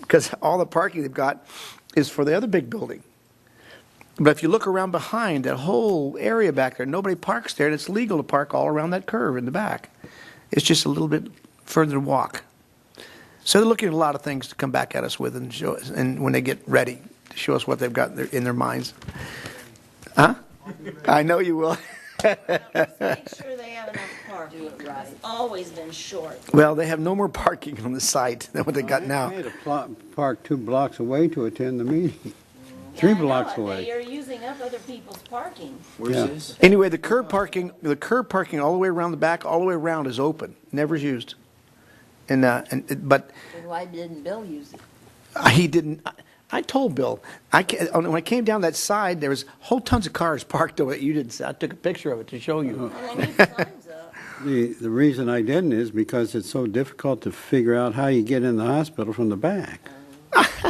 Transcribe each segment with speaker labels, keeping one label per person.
Speaker 1: because all the parking they've got is for the other big building. But if you look around behind, that whole area back there, nobody parks there, and it's legal to park all around that curve in the back. It's just a little bit further to walk. So they're looking at a lot of things to come back at us with and show us, and when they get ready, to show us what they've got in their, in their minds. Huh? I know you will.
Speaker 2: Make sure they have enough parking. It's always been short.
Speaker 1: Well, they have no more parking on the site than what they got
Speaker 3: I
Speaker 1: now.
Speaker 3: had to pl- park two blocks away to attend the meeting, three
Speaker 2: Yeah, I know
Speaker 3: blocks
Speaker 2: it. They
Speaker 3: away.
Speaker 2: are using up other people's parking.
Speaker 4: Where's
Speaker 3: Yeah.
Speaker 4: this?
Speaker 1: Anyway, the curb parking, the curb parking all the way around the back, all the way around is open, never is used. And, uh, and, but
Speaker 5: Then why didn't Bill use it?
Speaker 1: he didn't, I- I told Bill, I, ca- when I came down that side, there was whole tons of cars parked over it. You didn't, see- I took a picture of it to show you.
Speaker 2: And then your time's up.
Speaker 3: The, the reason I didn't is because it's so difficult to figure out how you get in the hospital from the back.
Speaker 4: Uh-huh.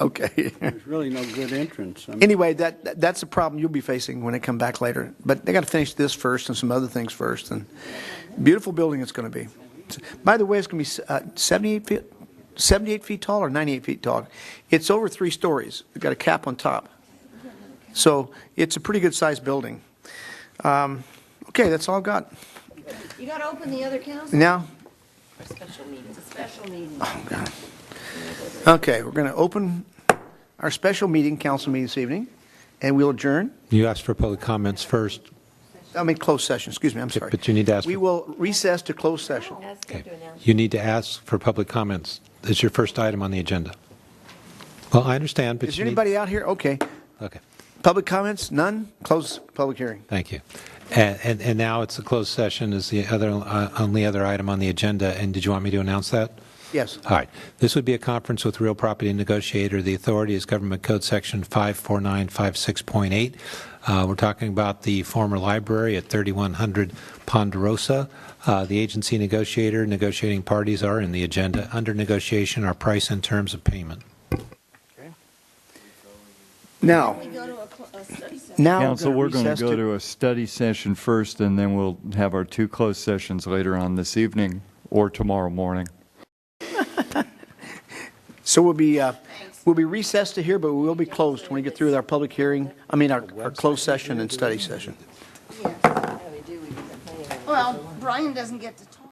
Speaker 1: Okay.
Speaker 3: There's really no good entrance. I mean,
Speaker 1: Anyway, that, that- that's a problem you'll be facing when I come back later. But they got to finish this first and some other things first. And beautiful building it's going to be. By the way, it's going to be uh, 78 feet, 78 feet tall or 98 feet tall. It's over three stories. It's got a cap on top. So it's a pretty good-sized building. Um, Okay, that's all I've got.
Speaker 5: You gotta open the other council
Speaker 1: Now,
Speaker 5: for special meetings. It's a special meeting.
Speaker 1: okay, we're going to open our special meeting, council meeting this evening, and we'll adjourn.
Speaker 6: You asked for public comments first.
Speaker 1: I mean, closed session, excuse me, I'm sorry.
Speaker 6: but you need to ask
Speaker 1: We
Speaker 6: for-
Speaker 1: will recess to closed session.
Speaker 5: That's good to announce.
Speaker 6: You need to ask for public comments. It's your first item on the agenda. Well, I understand, but
Speaker 1: Is
Speaker 6: you
Speaker 1: there
Speaker 6: need-
Speaker 1: anybody out here? Okay.
Speaker 6: Okay,
Speaker 1: Public comments? None? Close public hearing.
Speaker 6: thank you. And, and- and now it's a closed session is the other, uh, only other item on the agenda, and did you want me to announce that?
Speaker 1: Yes.
Speaker 6: All right. This would be a conference with real property negotiator. The authority is Government Code Section 54956.8. Uh, We're talking about the former library at 3100 Ponderosa. Uh, The agency negotiator, negotiating parties are in the agenda. Under negotiation are price and terms of payment.
Speaker 1: Now,
Speaker 5: We go to a cl- a study session.
Speaker 1: now.
Speaker 4: Council, we're going to
Speaker 1: recess
Speaker 4: go to a study session first, and then we'll have our two closed sessions later on this evening or tomorrow morning.
Speaker 1: So we'll be, uh, we'll be recessed to here, but we will be closed when we get through with our public hearing, I mean, our, our closed session and study session.
Speaker 5: Yes, yeah, we do, we do.
Speaker 2: Well, Brian doesn't get to talk.